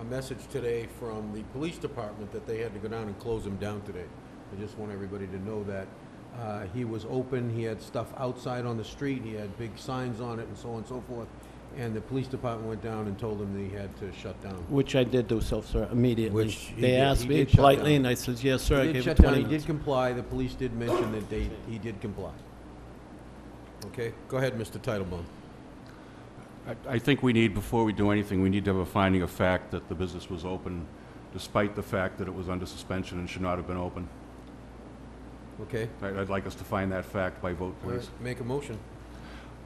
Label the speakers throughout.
Speaker 1: a message today from the police department that they had to go down and close him down today. I just want everybody to know that. Uh, He was open, he had stuff outside on the street, he had big signs on it and so on and so forth. And the police department went down and told him that he had to shut down.
Speaker 2: Which I did do so, sir, immediately.
Speaker 1: Which he
Speaker 2: They
Speaker 1: did-
Speaker 2: asked
Speaker 1: he
Speaker 2: me
Speaker 1: did shut
Speaker 2: politely,
Speaker 1: down.
Speaker 2: and I said, yes, sir,
Speaker 1: He
Speaker 2: I
Speaker 1: did
Speaker 2: gave it
Speaker 1: shut down,
Speaker 2: 20
Speaker 1: he did
Speaker 2: minutes.
Speaker 1: comply, the police did mention that they, he did comply. Okay, go ahead, Mr. Titlebaum.
Speaker 3: I- I think we need, before we do anything, we need to have a finding of fact that the business was open despite the fact that it was under suspension and should not have been open.
Speaker 1: Okay?
Speaker 3: I'd I'd like us to find that fact by vote, please.
Speaker 1: Make a motion.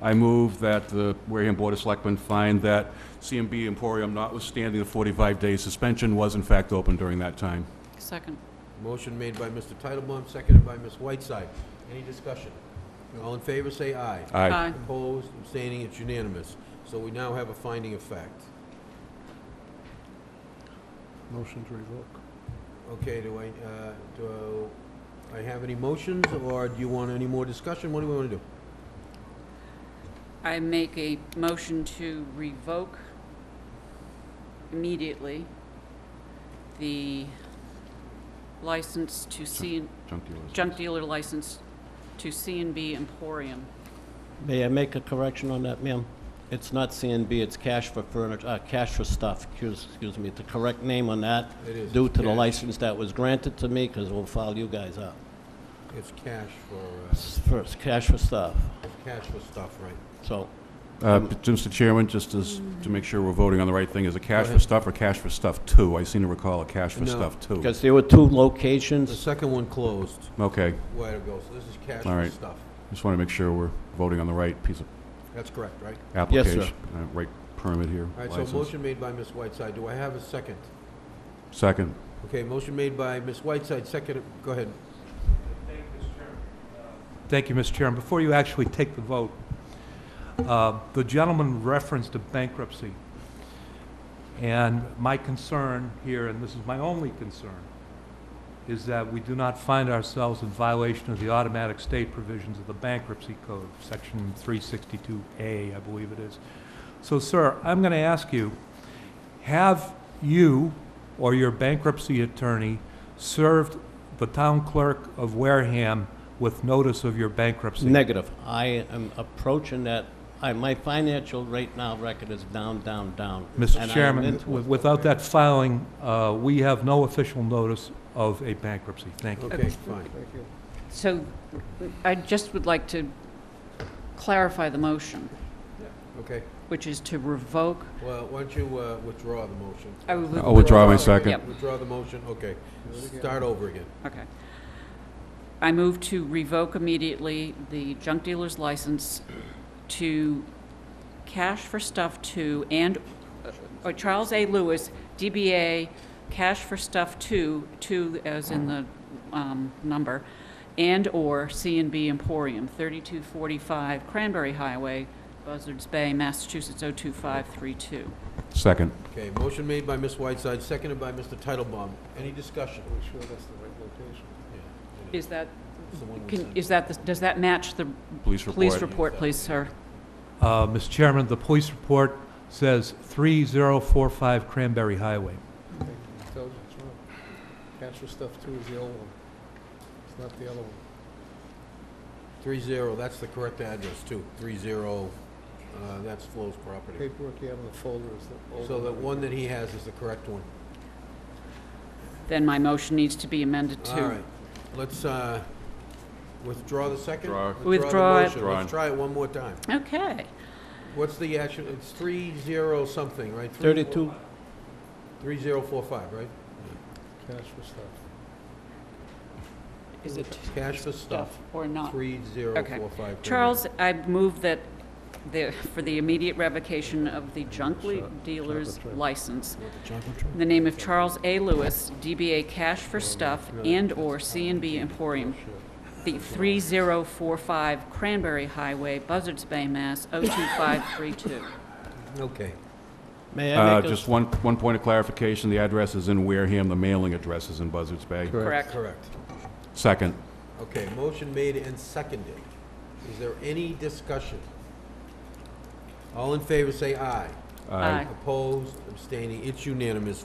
Speaker 3: I move that the Wareham Board of Selectmen find that CMB Emporium, notwithstanding the 45-day suspension, was in fact open during that time.
Speaker 4: Second.
Speaker 1: Motion made by Mr. Titlebaum, seconded by Ms. Whiteside. Any discussion? All in favor, say aye.
Speaker 3: Aye.
Speaker 1: Opposed, abstaining, it's unanimous. So we now have a finding of fact.
Speaker 5: Motion to revoke.
Speaker 1: Okay, do I, uh, do I have any motions, or do you want any more discussion? What do we want to do?
Speaker 4: I make a motion to revoke immediately the license to C,
Speaker 3: Junk dealers.
Speaker 4: junk dealer license to C and B Emporium.
Speaker 2: May I make a correction on that, ma'am? It's not CNB, it's Cash for Furniture, uh, Cash for Stuff, excuse, excuse me. The correct name on that,
Speaker 1: It is
Speaker 2: due to the
Speaker 1: cash.
Speaker 2: license that was granted to me, because we'll file you guys up.
Speaker 1: It's cash for, uh,
Speaker 2: S- First, Cash for Stuff,
Speaker 1: cash for stuff, right?
Speaker 2: so,
Speaker 3: Uh, Mr. Chairman, just as, to make sure we're voting on the right thing, is it cash
Speaker 1: Go
Speaker 3: for
Speaker 1: ahead.
Speaker 3: stuff or cash for stuff two? I seem to recall a cash for
Speaker 1: No.
Speaker 3: stuff two.
Speaker 2: because there were two
Speaker 1: The
Speaker 2: locations.
Speaker 1: second one closed
Speaker 3: Okay,
Speaker 1: a while ago, so this is cash
Speaker 3: All
Speaker 1: for
Speaker 3: right.
Speaker 1: stuff.
Speaker 3: just want to make sure we're voting on the right piece of
Speaker 1: That's correct, right?
Speaker 2: Yes,
Speaker 3: application.
Speaker 2: sir.
Speaker 3: uh, Right permit here.
Speaker 1: All right,
Speaker 3: license.
Speaker 1: so motion made by Ms. Whiteside. Do I have a second?
Speaker 3: Second.
Speaker 1: Okay, motion made by Ms. Whiteside, second, go ahead.
Speaker 6: Thank you, Mr. Chairman. Before you actually take the vote, uh, the gentleman referenced a bankruptcy. And my concern here, and this is my only concern, is that we do not find ourselves in violation of the automatic state provisions of the bankruptcy code, section 362A, I believe it is. So, sir, I'm going to ask you, have you or your bankruptcy attorney served the town clerk of Wareham with notice of your bankruptcy?
Speaker 2: Negative. I am approaching that, I, my financial right now record is down, down, down. and I am
Speaker 6: Mr. Chairman,
Speaker 2: into
Speaker 6: with-
Speaker 2: it.
Speaker 6: without that filing, uh, we have no official notice of a bankruptcy. Thank you.
Speaker 1: Okay, fine.
Speaker 5: Thank you.
Speaker 4: So I just would like to clarify the motion,
Speaker 1: Okay,
Speaker 4: which is to revoke,
Speaker 1: well, why don't you uh, withdraw the motion?
Speaker 4: I would
Speaker 1: Oh,
Speaker 3: I'll withdraw my
Speaker 4: Yep.
Speaker 3: second.
Speaker 1: Withdraw the motion, okay.
Speaker 5: Do it again.
Speaker 1: Start over again.
Speaker 4: Okay. I move to revoke immediately the junk dealer's license to Cash for Stuff Two and, uh, or Charles A. Lewis, DBA Cash for Stuff Two, two as in the um, number, and/or C and B Emporium, 3245 Cranberry Highway, Buzzards Bay, Massachusetts 02532.
Speaker 3: Second.
Speaker 1: Okay, motion made by Ms. Whiteside, seconded by Mr. Titlebaum. Any discussion?
Speaker 5: Are we sure that's the right location?
Speaker 1: Yeah, it
Speaker 4: Is that,
Speaker 1: It's the one we
Speaker 4: can-
Speaker 1: sent.
Speaker 4: is that, the- does that match the
Speaker 3: Police report.
Speaker 4: police report, please, sir?
Speaker 6: Uh, Mr. Chairman, the police report says 3045 Cranberry Highway.
Speaker 5: Thank you. Intelligence, wrong. Cash for stuff too is the old one. It's not the other one.
Speaker 1: Three zero, that's the correct address too. Three zero, uh, that's Flo's property.
Speaker 5: Paperwork you have in the folder is the old one.
Speaker 1: So the one that he has is the correct one.
Speaker 4: Then my motion needs to be amended
Speaker 1: All
Speaker 4: to
Speaker 1: right, let's uh, withdraw the second?
Speaker 3: Withdraw.
Speaker 4: Withdraw it.
Speaker 1: the motion.
Speaker 3: Withdraw.
Speaker 1: Let's try it one more time.
Speaker 4: Okay.
Speaker 1: What's the actual, it's three zero something, right? Three-
Speaker 2: Thirty-two,
Speaker 1: Three zero four five, right?
Speaker 5: Cash for stuff.
Speaker 4: Is it
Speaker 1: Cash for stuff,
Speaker 4: stuff or not?
Speaker 1: three zero
Speaker 4: Okay.
Speaker 1: four five.
Speaker 4: Charles, I move that the, for the immediate revocation of the junk le- dealer's license, in the name of Charles A. Lewis, DBA Cash for Stuff and/or C and B Emporium, the 3045 Cranberry Highway, Buzzards Bay, Mass. 02532.
Speaker 1: Okay.
Speaker 2: may I
Speaker 3: Uh,
Speaker 2: make a
Speaker 3: Just one, one point of clarification, the address is in Wareham, the mailing address is in Buzzards Bay.
Speaker 4: Correct?
Speaker 1: Correct.
Speaker 3: Second.
Speaker 1: Okay, motion made and seconded. Is there any discussion? All in favor, say aye.
Speaker 4: Aye.
Speaker 1: Opposed, abstaining, it's unanimous,